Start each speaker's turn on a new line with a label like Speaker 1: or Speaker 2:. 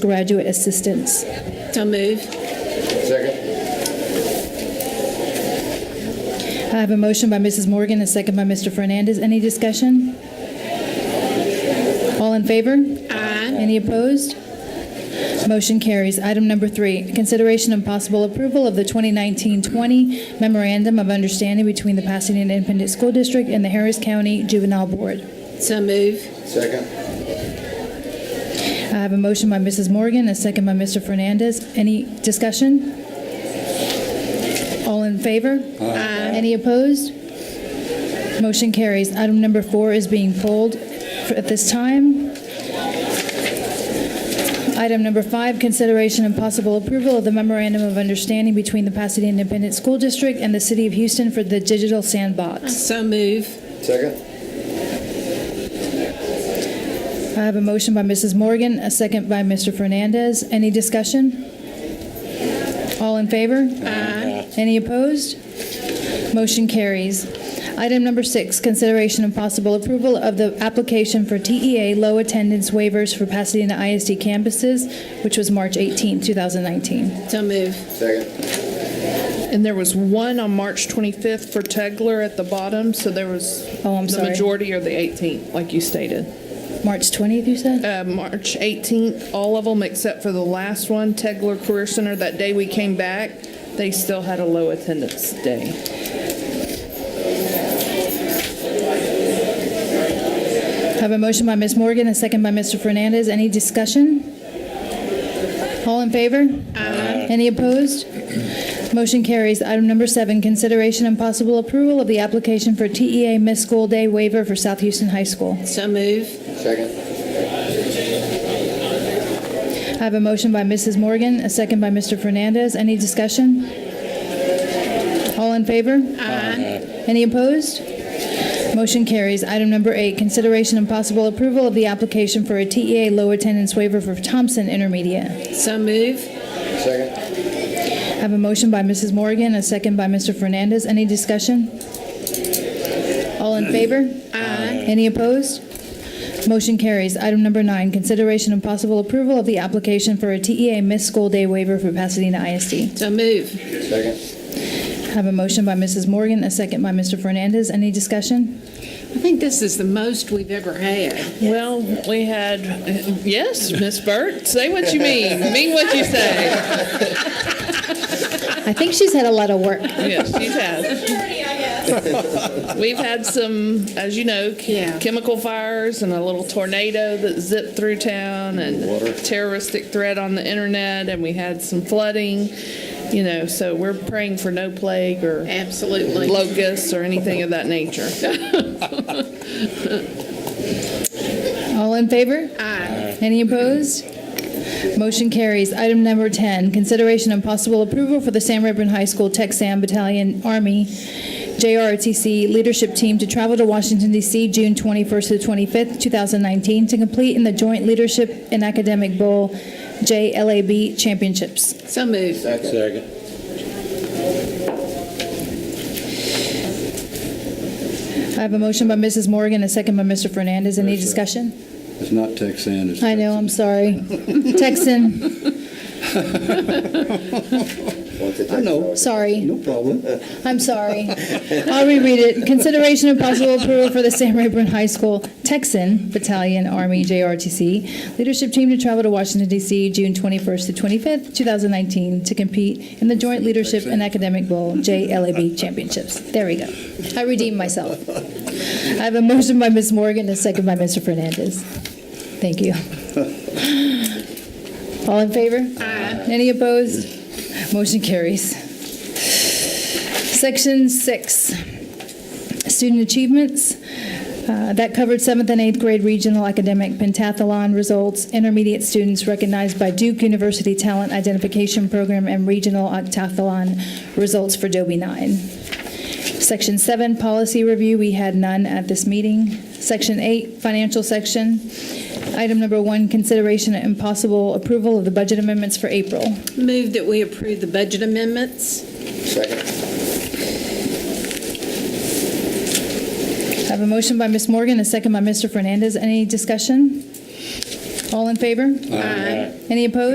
Speaker 1: graduate assistants.
Speaker 2: So move.
Speaker 3: Second.
Speaker 1: I have a motion by Mrs. Morgan, a second by Mr. Fernandez. Any discussion? All in favor? Aye. Any opposed? Motion carries. Item number three, consideration and possible approval of the 2019-20 Memorandum of Understanding between the Pasadena Independent School District and the Harris County Juvenile Board.
Speaker 2: So move.
Speaker 3: Second.
Speaker 1: I have a motion by Mrs. Morgan, a second by Mr. Fernandez. Any discussion? All in favor? Aye. Any opposed? Motion carries. Item number four is being pulled for- at this time. Item number five, consideration and possible approval of the memorandum of understanding between the Pasadena Independent School District and the City of Houston for the digital sandbox.
Speaker 2: So move.
Speaker 3: Second.
Speaker 1: I have a motion by Mrs. Morgan, a second by Mr. Fernandez. Any discussion? All in favor? Aye. Any opposed? Motion carries. Item number six, consideration and possible approval of the application for TEA low attendance waivers for Pasadena ISD campuses, which was March 18, 2019.
Speaker 2: So move.
Speaker 3: Second.
Speaker 4: And there was one on March 25th for Tegler at the bottom, so there was.
Speaker 1: Oh, I'm sorry.
Speaker 4: The majority are the 18th, like you stated.
Speaker 1: March 20th, you said?
Speaker 4: Uh, March 18th, all of them except for the last one, Tegler Career Center, that day we came back, they still had a low attendance day.
Speaker 1: I have a motion by Ms. Morgan, a second by Mr. Fernandez. Any discussion? All in favor? Aye. Any opposed? Motion carries. Item number seven, consideration and possible approval of the application for TEA Miss School Day waiver for South Houston High School.
Speaker 2: So move.
Speaker 3: Second.
Speaker 1: I have a motion by Mrs. Morgan, a second by Mr. Fernandez. Any discussion? All in favor? Aye. Any opposed? Motion carries. Item number eight, consideration and possible approval of the application for a TEA low attendance waiver for Thompson Intermediate.
Speaker 2: So move.
Speaker 3: Second.
Speaker 1: I have a motion by Mrs. Morgan, a second by Mr. Fernandez. Any discussion? All in favor? Aye. Any opposed? Motion carries. Item number nine, consideration and possible approval of the application for a TEA missed school day waiver for Pasadena ISD.
Speaker 2: So move.
Speaker 3: Second.
Speaker 1: I have a motion by Mrs. Morgan, a second by Mr. Fernandez. Any discussion?
Speaker 2: I think this is the most we've ever had.
Speaker 4: Well, we had, uh, yes, Miss Burt, say what you mean, mean what you say.
Speaker 1: I think she's had a lot of work.
Speaker 4: Yes, you have. We've had some, as you know, ch-
Speaker 2: Yeah.
Speaker 4: chemical fires and a little tornado that zipped through town and
Speaker 3: Water.
Speaker 4: terroristic threat on the internet, and we had some flooding, you know, so we're praying for no plague or
Speaker 2: Absolutely.
Speaker 4: locusts or anything of that nature.
Speaker 1: All in favor? Aye. Any opposed? Motion carries. Item number 10, consideration and possible approval for the San Reburn High School Texan Battalion Army JROTC Leadership Team to travel to Washington DC June 21st to 25th, 2019 to complete in the Joint Leadership and Academic Bowl JLAB Championships.
Speaker 2: So move.
Speaker 3: Second.
Speaker 1: I have a motion by Mrs. Morgan, a second by Mr. Fernandez. Any discussion?
Speaker 5: It's not Texan, it's.
Speaker 1: I know, I'm sorry. Texan,
Speaker 3: Once it
Speaker 5: I know,
Speaker 3: takes
Speaker 1: sorry.
Speaker 5: no problem.
Speaker 1: I'm sorry. I'll reread it. Consideration and possible approval for the Sam Rayburn High School Texan Battalion Army JRTC leadership team to travel to Washington, D.C., June 21st to 25th, 2019, to compete in the Joint Leadership and Academic Bowl JLAB Championships. There we go. I redeemed myself. I have a motion by Ms. Morgan, a second by Mr. Fernandez. Thank you. All in favor? Aye. Any opposed? Motion carries. Section six, student achievements. Uh, That covered seventh and eighth grade regional academic pentathlon results, intermediate students recognized by Duke University Talent Identification Program, and regional octathlon results for Dobie nine. Section seven, policy review, we had none at this meeting. Section eight, financial section. Item number one, consideration and possible approval of the budget amendments for April.
Speaker 2: Move that we approve the budget amendments.
Speaker 3: Second.
Speaker 1: I have a motion by Ms. Morgan, a second by Mr. Fernandez. Any discussion? All in favor? Aye. Any opposed?